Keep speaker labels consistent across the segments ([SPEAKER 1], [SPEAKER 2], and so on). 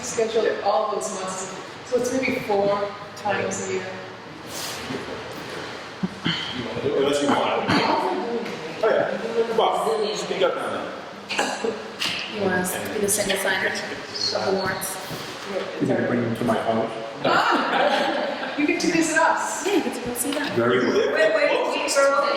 [SPEAKER 1] schedule all those months, so it's maybe four times a year.
[SPEAKER 2] You want to do it unless you want to. Oh, yeah. Come on, speak up now.
[SPEAKER 3] You want us to do the single sign of the warrants?
[SPEAKER 4] You're gonna bring them to my house?
[SPEAKER 1] You can do this at us.
[SPEAKER 3] Yeah, you get to go see that.
[SPEAKER 4] Very well.
[SPEAKER 5] Wait, wait, we- we're open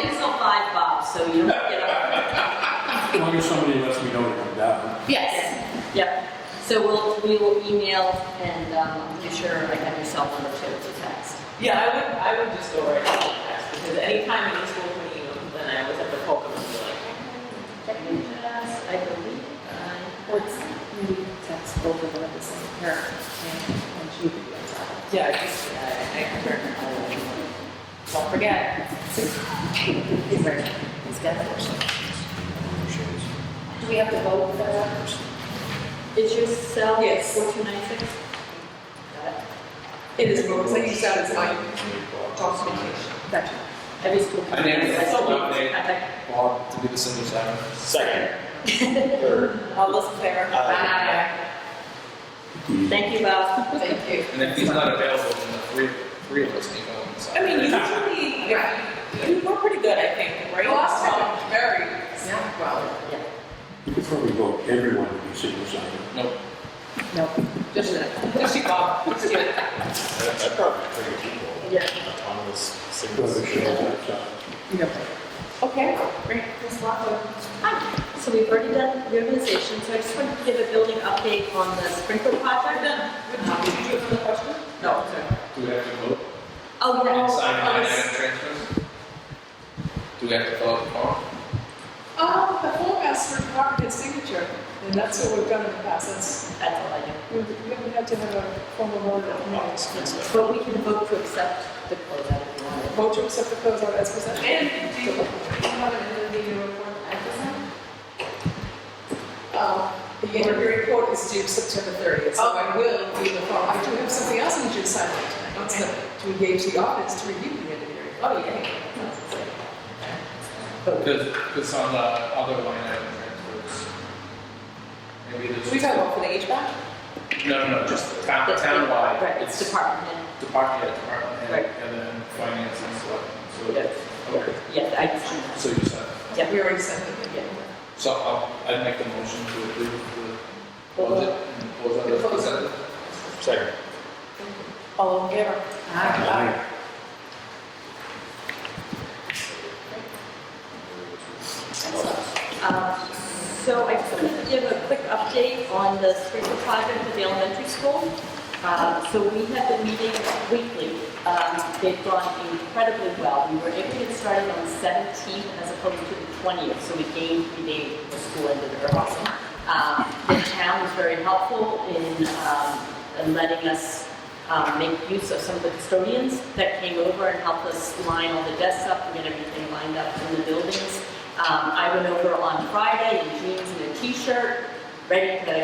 [SPEAKER 5] until five, Bob, so you don't get up.
[SPEAKER 4] As long as somebody lets me know to come down.
[SPEAKER 3] Yes.
[SPEAKER 5] Yep, so we'll, we will email and, um, be sure I have your cell number too, to text.
[SPEAKER 6] Yeah, I would, I would just go right to the test, because anytime any school can email, then I was at the Pokemon, like,
[SPEAKER 5] I believe, uh,
[SPEAKER 3] Or it's, maybe text both of them at the same time, and, and she could be on top.
[SPEAKER 6] yeah, I just, uh, I can turn it on. Don't forget.
[SPEAKER 3] He's very, he's got it. Do we have to vote for that?
[SPEAKER 5] is your cell?
[SPEAKER 6] Yes.
[SPEAKER 5] Four two nine six?
[SPEAKER 1] It is, but I use that as my documentation.
[SPEAKER 3] Gotcha.
[SPEAKER 5] Every school. can-
[SPEAKER 7] I named it.
[SPEAKER 5] So we-
[SPEAKER 7] Okay.
[SPEAKER 5] I-
[SPEAKER 7] Bob to be the single sign.
[SPEAKER 2] Second. Third.
[SPEAKER 6] All those in favor?
[SPEAKER 2] Aye.
[SPEAKER 5] Thank you, Bob.
[SPEAKER 1] Thank you.
[SPEAKER 7] And if he's not available, then the three, three of us need to go on the
[SPEAKER 6] I
[SPEAKER 7] side.
[SPEAKER 6] mean, usually, yeah, you were pretty good, I think, right?
[SPEAKER 1] Last time, very, well,
[SPEAKER 4] You could probably vote everyone to be single sign.
[SPEAKER 7] Nope.
[SPEAKER 3] Nope.
[SPEAKER 1] just, just you Bob, just you.
[SPEAKER 2] That's probably pretty people.
[SPEAKER 5] Yeah.
[SPEAKER 2] On this single.
[SPEAKER 4] Whoever shows up, so.
[SPEAKER 3] You don't.
[SPEAKER 1] Okay, great, Ms. Lockwood.
[SPEAKER 5] Hi, so we've already done reorganization, so I just wanted to give a building update on the sprinkler project.
[SPEAKER 6] Did you have another question? No, it's okay.
[SPEAKER 7] Do we have to vote?
[SPEAKER 5] Oh,
[SPEAKER 7] And
[SPEAKER 5] yeah.
[SPEAKER 7] sign line
[SPEAKER 1] oh,
[SPEAKER 7] item transfers? Do we have to vote tomorrow?
[SPEAKER 1] Oh, the form asks for cooperative signature, and that's what we've done in the past, that's,
[SPEAKER 5] That's all I do.
[SPEAKER 1] we we haven't had to have a formal vote on that.
[SPEAKER 5] But we can vote to accept the closeout if you want.
[SPEAKER 1] Vote to accept the closeout as presented. And do you have an interview report The interview Uh, report is due September 30th, so I will do the form. I do have something else on the agenda tonight, that's the- to engage the audience to review the interview.
[SPEAKER 6] Oh, yeah.
[SPEAKER 7] Because, because on the other line item transfers. Maybe there's.
[SPEAKER 1] We talking about for the HVAC?
[SPEAKER 7] No, no, no, just town,
[SPEAKER 5] That's-
[SPEAKER 7] townwide.
[SPEAKER 5] Right, it's department head.
[SPEAKER 7] Department, yeah, department,
[SPEAKER 5] Right.
[SPEAKER 7] head, and then finance and so on.
[SPEAKER 6] Yes.
[SPEAKER 7] So, okay,
[SPEAKER 5] Yeah, I can.
[SPEAKER 7] so you said,
[SPEAKER 5] Yeah.
[SPEAKER 1] We already sent it.
[SPEAKER 5] Yeah.
[SPEAKER 7] so I'll, I'd make the motion to approve the budget and close out the presented.
[SPEAKER 2] Second.
[SPEAKER 1] All in favor?
[SPEAKER 4] Aye.
[SPEAKER 5] Um, So I just wanted to give a quick update on the sprinkler project at the elementary school. Um, So we have been meeting weekly. Um, They've gone incredibly well. We were able to get started on the 17th as opposed to the 20th, so we gained three days the school ended early. Um, The town was very helpful in um, in letting us um, make use of some of the custodians that came over and helped us line all the desks up and get everything lined up in the buildings. Um, I went over on Friday in jeans and a t-shirt, ready to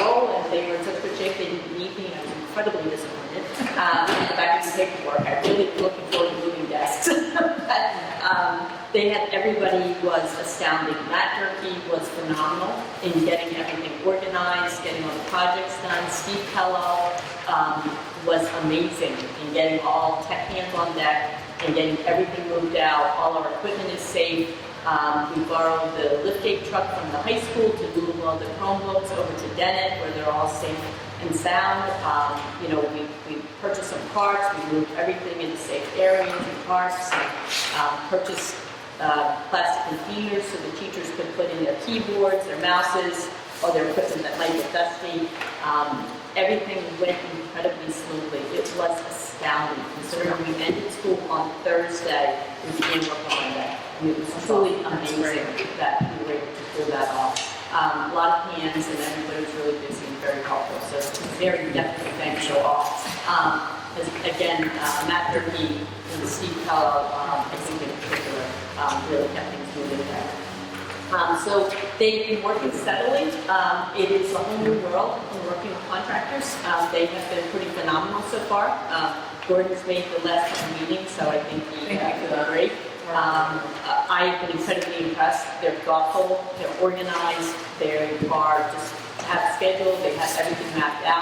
[SPEAKER 5] roll, and they were in such good shape, they didn't need me, and I was incredibly disappointed. Um, and back to paperwork, I really looking forward to moving desks. But, um, they had, everybody was astounding. Matt Durkey was phenomenal in getting everything organized, getting all the projects done. Steve Kellogg, um, was amazing in getting all tech hands on deck and getting everything moved out. All our equipment is safe. Um, we borrowed the liftgate truck from the high school to move all the Chromebooks over to Dennett where they're all safe and sound. Um, you know, we, we purchased some carts, we moved everything into safe areas and carts, um, purchased uh, plastic containers so the teachers could put in their keyboards, their mouses, or their equipment that might get dusty. Um, Everything went incredibly smoothly. It was astounding considering we ended school on Thursday, we began work on Monday. I mean, It was truly amazing that we were able to pull that off. Um, A lot of hands and everybody was really busy and very helpful, so very definitely thank you all. Um, as- Again, uh, Matt Durkey and Steve Kellogg, um, I think in particular, um, really kept things moving there. Um, so they've been working steadily. Um, it is a whole new world in working with contractors. Um, they have been pretty phenomenal so far. Uh, Gordon's made the last meeting, so I think he uh,
[SPEAKER 1] Thank you.
[SPEAKER 5] could agree. Um, uh, I've been incredibly impressed. They're thoughtful, they're organized, they are just have schedule, they have everything mapped out.